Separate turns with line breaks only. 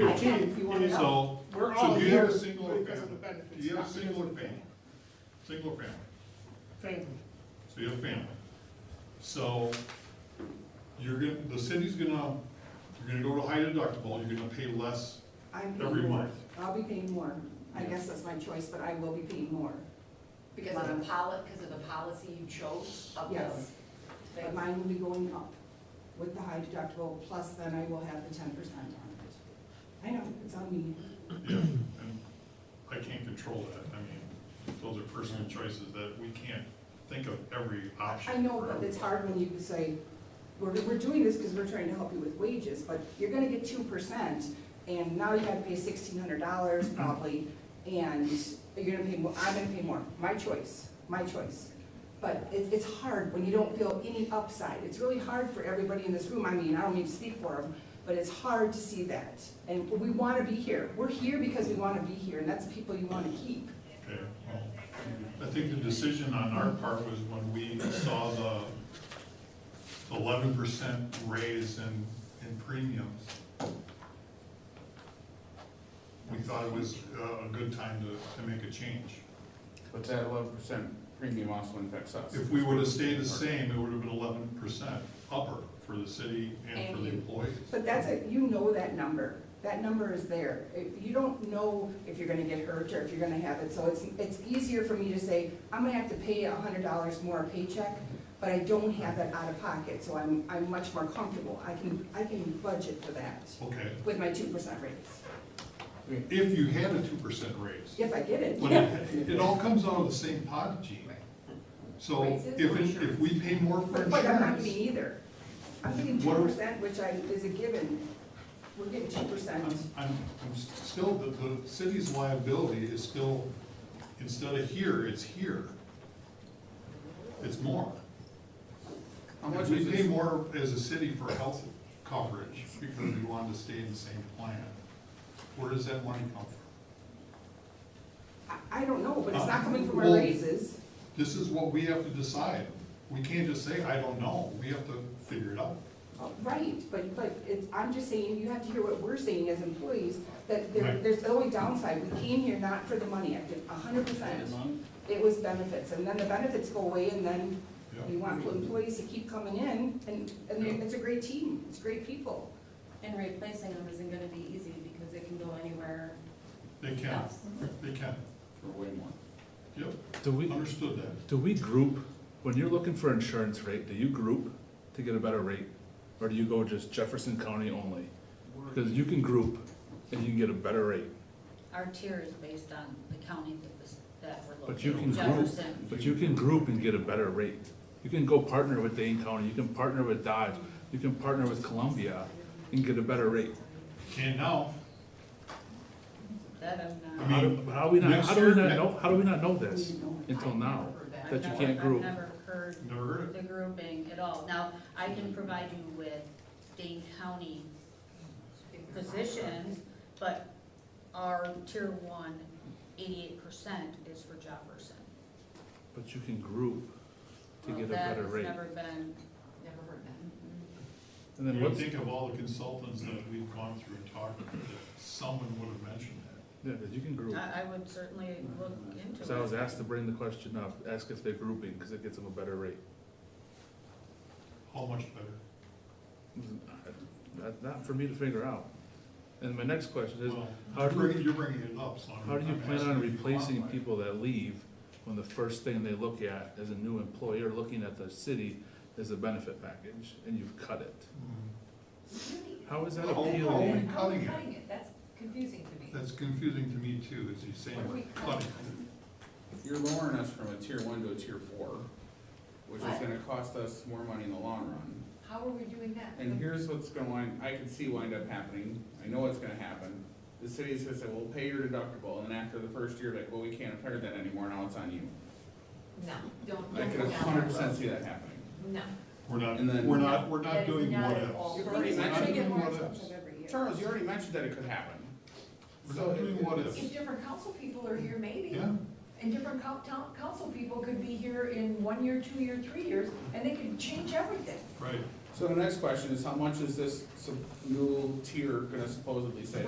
I can if you wanna know.
So,
We're
so
all
you have
here
a single
because of the
family,
benefits.
you have a single
not because of the
family, single family,
Family,
so you have a family. So, you're gonna, the city's gonna, you're gonna go to high deductible, you're gonna pay less,
I'm paying
every
more.
month.
I'll be paying more. I guess that's my choice, but I will be paying more.
Because of the poli, because of the policy you chose of
Yes.
this
But
thing?
mine will be going up with the high deductible, plus then I will have the ten percent on it. I know, it's on me.
yeah, and I can't control that, I mean, those are personal choices that we can't think of every option.
I know,
for
but it's
everybody.
hard when you say, we're, we're doing this because we're trying to help you with wages, but you're gonna get two percent, and now you gotta pay sixteen hundred dollars
Mm-hmm.
probably, and you're gonna pay more, I'm gonna pay more, my choice, my choice. But it, it's hard when you don't feel any upside, it's really hard for everybody in this room, I mean, I don't mean to speak for them, but it's hard to see that, and we wanna be here, we're here because we wanna be here, and that's the people you wanna keep.
Okay, well, I think the decision on our part was when we saw the eleven percent raise in, in premiums. We thought it was uh, a good time to, to make a change.
But that eleven percent premium also affects us.
If we would've stayed the same, it would've been eleven percent upper for the city and for the
And you-
employees.
But that's it, you know that number, that number is there. If You don't know if you're gonna get hurt or if you're gonna have it, so it's, it's easier for me to say, I'm gonna have to pay a hundred dollars more a paycheck, but I don't have that out of pocket, so I'm, I'm much more comfortable. I can, I can budget for that
Okay,
with my two percent raise,
if you had a two percent raise,
if I get it.
But it, it all comes out of the same pot, Gene. So if,
Raises
it-
or
if
insurance?
we pay more for
But but I'm not
insurance.
getting either. I'm getting two
What are-
percent, which I, is a given. We're getting two percent.
I'm, I'm, I'm still, the, the city's liability is still, instead of here, it's here. It's more.
How much
We
is
pay
this?
more as a city for health coverage because we wanted to stay in the same plan. Where does that money come from?
I, I don't know, but it's not coming from our
Uh, Well-
raises.
This is what we have to decide. We can't just say, I don't know. We have to figure it out.
Oh, Right, but, but it's, I'm just saying, you have to hear what we're saying as employees, that there,
Right.
there's the only downside, we came here not for the money, I did a hundred percent. It was benefits, and then the benefits go away, and then we want employees to keep coming in, and, and they- it's a great team, it's great people.
And replacing them isn't gonna be easy because it can go anywhere
They can,
else.
Mm-hmm.
they can.
For way more.
Yep,
Do we,
understood that.
do we group, when you're looking for insurance rate, do you group to get a better rate? Or do you go just Jefferson County only? Because you can group and you can get a better rate,
Our tier is based on the county that was, that we're
but you
looking
can
at.
group,
Jefferson.
but you can group and get a better rate. You can go partner with Dane County, you can partner with Dodge, you can partner with Columbia and get a better rate.
Can now.
That I'm
I
not.
How do,
mean,
how do we not,
next
how do we
year-
not know, how do we not know this
We know.
until
I've
now?
never heard
that you
I've
can't
never-
group.
I've never heard
Never heard it.
the grouping at all. Now, I can provide you with Dane County positions, but our tier one, eighty-eight percent is for Jefferson.
But you can group to
Well,
get a better rate.
That has never been,
Never heard that.
And
You
then
would
what's,
think of all the consultants that we've gone through and talked to, that someone would have mentioned that.
yeah, you can group.
I, I would certainly look into it.
So I was asked to bring the question up, ask if they're grouping, because it gets them a better rate.
How much better?
Not, not for me to figure out. And my next question is,
Well,
how
you're
do you,
bringing- You're bringing it up, so I'm.
how do you
I'm
plan on
asking if you want
replacing
one.
people that leave when the first thing they look at as a new employer, looking at the city, is a benefit package, and you've cut it?
Hmm.
How is that
How- how are we
appealing?
cutting it?
Cutting it, that's confusing to me.
That's confusing to me too, is you saying
What are we
we're cutting.
If you're lowering us from a tier one to a tier four, which is
What?
gonna cost us more money in the long run.
How are we doing that?
And here's what's gonna wind, I can see wind up happening, I know it's gonna happen. The city says that we'll pay your deductible, and after the first year, like, well, we can't afford that anymore, now it's on you.
No, don't,
I
don't
can hundred
go down that
percent
road.
see that happening.
No.
We're not,
And then-
we're not, we're
That
not
is
doing
not
what
at all.
else.
You've
We're
already
We're not
mentioned,
doing
get more
what
expensive
ifs.
every year.
Charles, you already mentioned that it could happen.
We're
So
not doing
it-
what
it's-
ifs.
If different council people are here, maybe.
Yeah,
And different coun- town, council people could be here in one year, two year, three years, and they could change everything.
right.
So the next question is, how much is this sup- new tier gonna supposedly save?